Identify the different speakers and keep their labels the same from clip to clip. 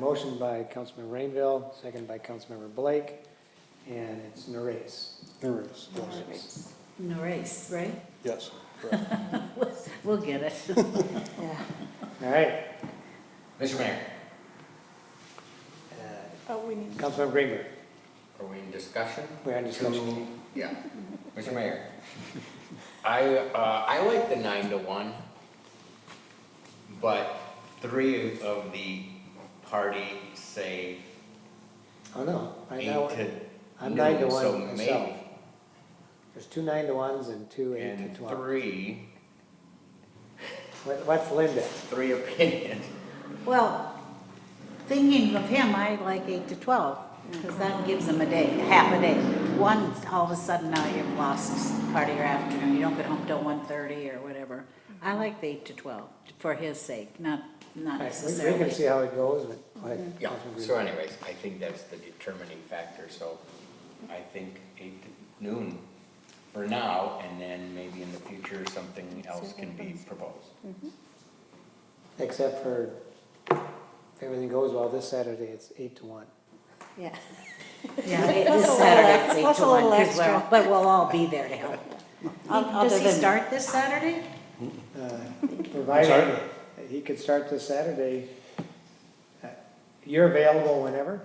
Speaker 1: Motion by Councilmember Rainville, second by Councilmember Blake, and it's Nares.
Speaker 2: There is, yes.
Speaker 3: No race, right?
Speaker 2: yes, correct.
Speaker 3: We'll get it.
Speaker 1: All right,
Speaker 4: Mr. Mayor,
Speaker 1: uh,
Speaker 5: Oh, we need,
Speaker 1: Councilmember Greenberg,
Speaker 4: are we in discussion?
Speaker 1: we're on discussion.
Speaker 4: Yeah. Mr. Mayor, I, uh, I like the nine to one, but three of the party say
Speaker 1: Oh, no, right
Speaker 4: eight
Speaker 1: now,
Speaker 4: to
Speaker 1: I'm nine to
Speaker 4: noon, so
Speaker 1: one myself.
Speaker 4: maybe-
Speaker 1: There's two nine to ones and two eight to
Speaker 4: And
Speaker 1: twelve.
Speaker 4: three,
Speaker 1: What- What's Linda?
Speaker 4: three opinions.
Speaker 3: Well, thinking of him, I like eight to twelve, because that gives them a day, half a day. One, all of a sudden now you've lost part of your afternoon, you don't get home till one thirty or whatever. I like the eight to twelve, for his sake, not, not
Speaker 1: All right, We we can see
Speaker 3: necessarily.
Speaker 1: how it goes, but. go ahead,
Speaker 4: Yeah,
Speaker 1: Councilmember
Speaker 4: so
Speaker 1: Greenberg.
Speaker 4: anyways, I think that's the determining factor, so I think eight to noon for now, and then maybe in the future, something else can be proposed.
Speaker 1: Except for, if everything goes well, this Saturday, it's eight to one.
Speaker 5: yeah.
Speaker 3: Yeah, it- this
Speaker 5: That's a little
Speaker 3: Saturday's
Speaker 5: ex-
Speaker 3: eight
Speaker 5: that's
Speaker 3: to
Speaker 5: a
Speaker 3: one,
Speaker 5: little
Speaker 3: 'cause we're-
Speaker 5: extra.
Speaker 3: but we'll all be there to help. Does he
Speaker 5: than-
Speaker 3: start this Saturday?
Speaker 1: Uh, Provided,
Speaker 2: sorry?
Speaker 1: he could start this Saturday. Uh, You're available whenever?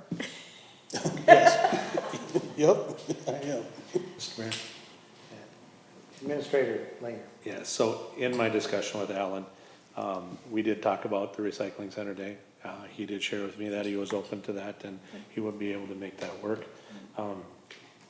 Speaker 2: Yep, I am. Mr. Mayor?
Speaker 1: Administrator Langer.
Speaker 6: Yeah, so in my discussion with Alan, um, we did talk about the recycling center day. Uh, he did share with me that he was open to that and he would be able to make that work. Um,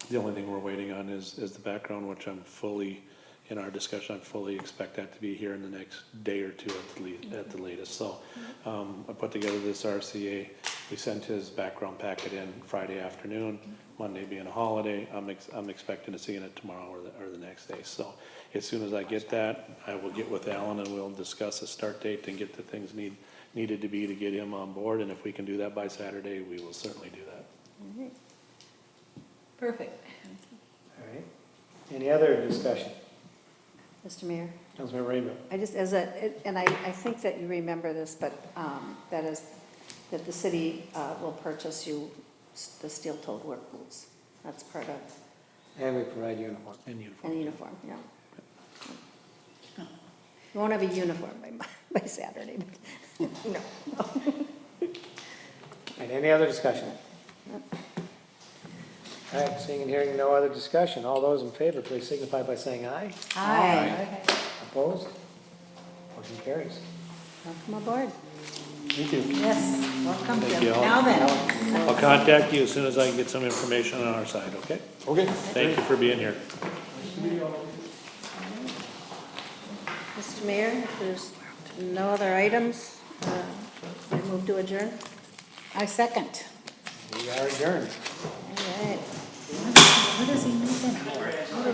Speaker 6: the only thing we're waiting on is, is the background, which I'm fully, in our discussion, I fully expect that to be here in the next day or two at the least, at the latest. So, um, I put together this RCA, we sent his background packet in Friday afternoon, Monday being a holiday, I'm ex- I'm expecting to see it tomorrow or the, or the next day. So, as soon as I get that, I will get with Alan and we'll discuss a start date and get the things need, needed to be to get him on board. And if we can do that by Saturday, we will certainly do that.
Speaker 3: Perfect.
Speaker 1: All right. Any other discussion?
Speaker 5: Mr. Mayor,
Speaker 1: Councilmember Rainville.
Speaker 5: I just, as a, and I, I think that you remember this, but um, that is, that the city uh, will purchase you s- the steel-toed work boots. That's part of,
Speaker 1: And we provide uniform.
Speaker 6: And uniform.
Speaker 5: and a uniform, yeah. Oh. You won't have a uniform by, Mon- by Saturday, but, no.
Speaker 1: And any other discussion? All right, seeing and hearing no other discussion, all those in favor, please signify by saying aye.
Speaker 3: Aye.
Speaker 1: Opposed? Motion carries.
Speaker 5: Welcome aboard.
Speaker 2: Thank you.
Speaker 3: Yes, welcome,
Speaker 6: Thank
Speaker 3: Jim.
Speaker 6: you all.
Speaker 3: Now then.
Speaker 6: I'll contact you as soon as I can get some information on our side, okay?
Speaker 2: Okay.
Speaker 6: Thank you for being here.
Speaker 5: Mr. Mayor, if there's no other items, uh, I move to adjourn.
Speaker 3: I second.
Speaker 1: We are adjourned.
Speaker 5: All right.
Speaker 3: What does he need then?